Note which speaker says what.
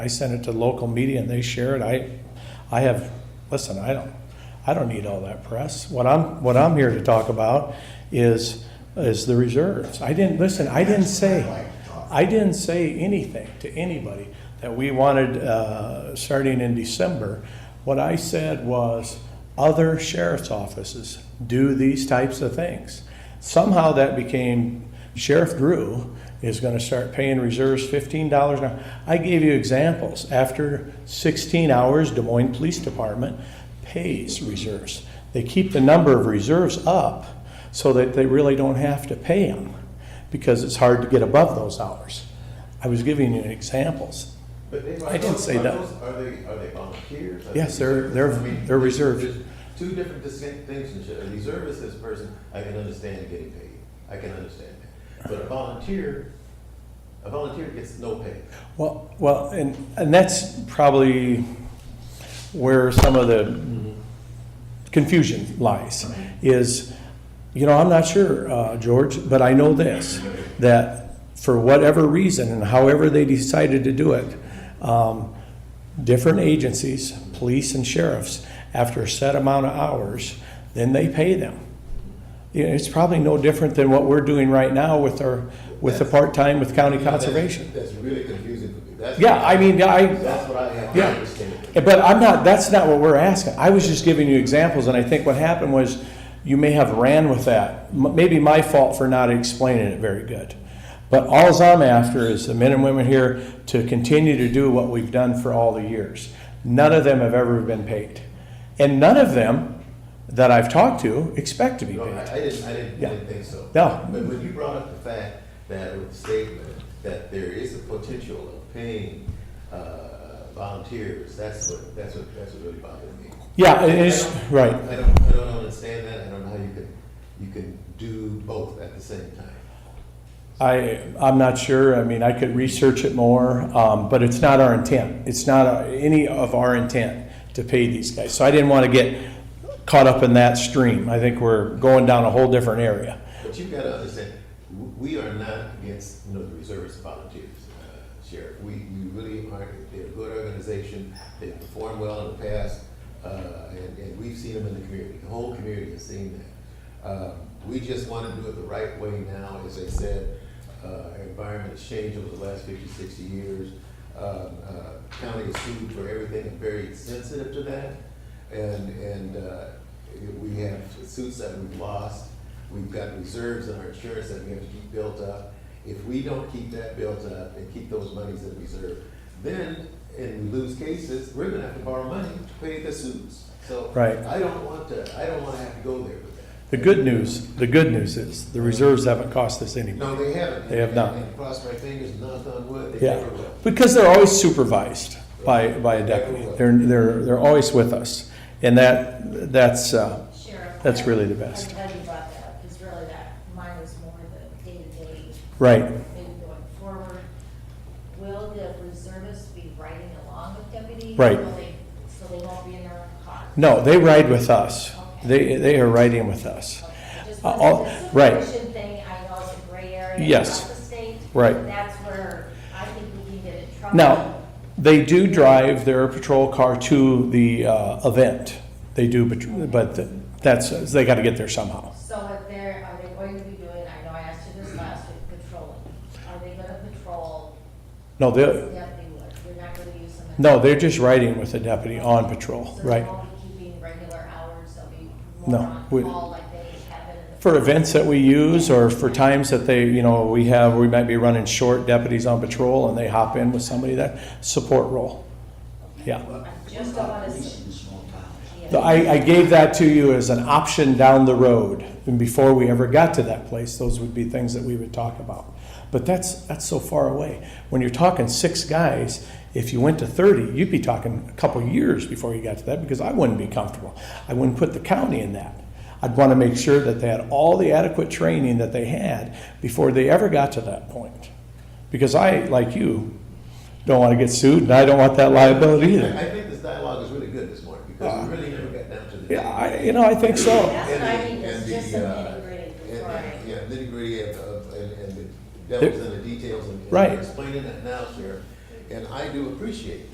Speaker 1: I send it to local media and they share it. I, I have, listen, I don't, I don't need all that press. What I'm, what I'm here to talk about is, is the reserves. I didn't, listen, I didn't say, I didn't say anything to anybody that we wanted, uh, starting in December. What I said was, other sheriff's offices do these types of things. Somehow that became Sheriff Drew is gonna start paying reserves fifteen dollars an hour. I gave you examples. After sixteen hours, Des Moines Police Department pays reserves. They keep the number of reserves up so that they really don't have to pay them because it's hard to get above those hours. I was giving you examples.
Speaker 2: But they-
Speaker 1: I didn't say
Speaker 2: are
Speaker 1: that.
Speaker 2: those- Are they, are they volunteers? Are
Speaker 1: Yes,
Speaker 2: they
Speaker 1: they're-
Speaker 2: reservists?
Speaker 1: they're-
Speaker 2: I mean,
Speaker 1: they're
Speaker 2: there's-
Speaker 1: reserved.
Speaker 2: there's Two different distinctions. here. A reservist is a person, I can understand getting paid. I can understand that. But a volunteer, a volunteer gets no pay.
Speaker 1: Well, well, and, and that's probably where some of the confusion lies, is, you know, I'm not sure, uh, George, but I know this, that for whatever reason and however they decided to do it, um, different agencies, police and sheriffs, after a set amount of hours, then they pay them. You know, It's probably no different than what we're doing right now with our, with the part-time with county conservation.
Speaker 2: That's really confusing for me. That's-
Speaker 1: Yeah, I mean, I,
Speaker 2: That's what I have to
Speaker 1: Yeah.
Speaker 2: understand.
Speaker 1: but I'm not, that's not what we're asking. I was just giving you examples, and I think what happened was you may have ran with that. M- Maybe my fault for not explaining it very good. But alls I'm after is the men and women here to continue to do what we've done for all the years. None of them have ever been paid. And none of them that I've talked to expect to be
Speaker 2: No, I,
Speaker 1: paid.
Speaker 2: I didn't, I didn't,
Speaker 1: Yeah.
Speaker 2: I didn't think so.
Speaker 1: No.
Speaker 2: But when you brought up the fact that with the statement that there is a potential of paying, uh, volunteers, that's what, that's what, that's what really bothered me.
Speaker 1: Yeah, it is, right.
Speaker 2: I don't, I don't understand that, I don't know how you can, you can do both at the same time.
Speaker 1: I, I'm not sure, I mean, I could research it more, um, but it's not our intent. It's not uh, any of our intent to pay these guys. So I didn't want to get caught up in that stream. I think we're going down a whole different area.
Speaker 2: But you've got to understand, w- we are not against, you know, the reservists volunteers, uh, Sheriff. We, we really aren't, they're a good organization, they've performed well in the past, uh, and, and we've seen them in the community, the whole community has seen that. Uh, We just want to do it the right way now, as I said, uh, our environment has changed over the last 50, 60 years. Um, uh, County is sued for everything, and very sensitive to that, and, and uh, we have suits that we've lost, we've got reserves in our insurance that we have to keep built up. If we don't keep that built up and keep those monies in reserve, then, and we lose cases, we're gonna have to borrow money to pay the suits. So.
Speaker 1: Right.
Speaker 2: I don't want to, I don't wanna have to go there with that.
Speaker 1: The good news, the good news is, the reserves haven't cost us any money.
Speaker 2: No, they haven't.
Speaker 1: They have not.
Speaker 2: And cross my fingers, knock on wood, they
Speaker 1: Yeah,
Speaker 2: never will.
Speaker 1: because they're always supervised by, by a deputy. They're, they're, they're always with us. And that, that's, uh,
Speaker 3: Sheriff.
Speaker 1: That's really the best.
Speaker 3: I'm glad you brought that up, because really that, mine was more the day-to-day,
Speaker 1: right.
Speaker 3: maybe going forward. Will the reservists be riding along with deputies?
Speaker 1: Right.
Speaker 3: Will they- So they won't be in their own car?
Speaker 1: No, they ride with us. They, they are riding with us.
Speaker 3: Okay, Just
Speaker 1: Uh, all-
Speaker 3: because it's a
Speaker 1: right.
Speaker 3: supervision thing, I know it's a gray area.
Speaker 1: Yes.
Speaker 3: throughout the state.
Speaker 1: Right.
Speaker 3: That's where I think we can get in trouble.
Speaker 1: Now, they do drive their patrol car to the uh, event. They do, but- but that's, they got to get there somehow.
Speaker 3: So if they're, are they going to be doing, I know I asked you this last week, patrolling? Are they gonna patrol
Speaker 1: No,
Speaker 3: the
Speaker 1: they,
Speaker 3: deputy work? You're not gonna use them? as-
Speaker 1: no, they're just riding with the deputy on patrol,
Speaker 3: So they
Speaker 1: right?
Speaker 3: won't be keeping regular hours, they'll be
Speaker 1: No,
Speaker 3: more on
Speaker 1: we-
Speaker 3: call like they have been in the.
Speaker 1: For events that we use or for times that they, you know, we have, we might be running short deputies on patrol and they hop in with somebody that, support role. Yeah.
Speaker 3: I just don't wanna see.
Speaker 1: The- I, I gave that to you as an option down the road, and before we ever got to that place, those would be things that we would talk about. But that's, that's so far away. When you're talking six guys, if you went to thirty, you'd be talking a couple years before you got to that, because I wouldn't be comfortable. I wouldn't put the county in that. I'd want to make sure that they had all the adequate training that they had before they ever got to that point. Because I, like you, don't want to get sued, and I don't want that liability either.
Speaker 2: I I think this dialogue is really good this morning, because we really never got down to the.
Speaker 1: Yeah, I, you know, I think so.
Speaker 3: That's what I
Speaker 2: And
Speaker 3: need,
Speaker 2: the-
Speaker 3: is
Speaker 2: and
Speaker 3: just
Speaker 2: the,
Speaker 3: some
Speaker 2: uh,
Speaker 3: nitty gritty
Speaker 2: and-
Speaker 3: before I.
Speaker 2: and- Yeah, nitty gritty of, of, and, and the devil's in the details and. and
Speaker 1: Right.
Speaker 2: Explaining that now, Sheriff, And I do appreciate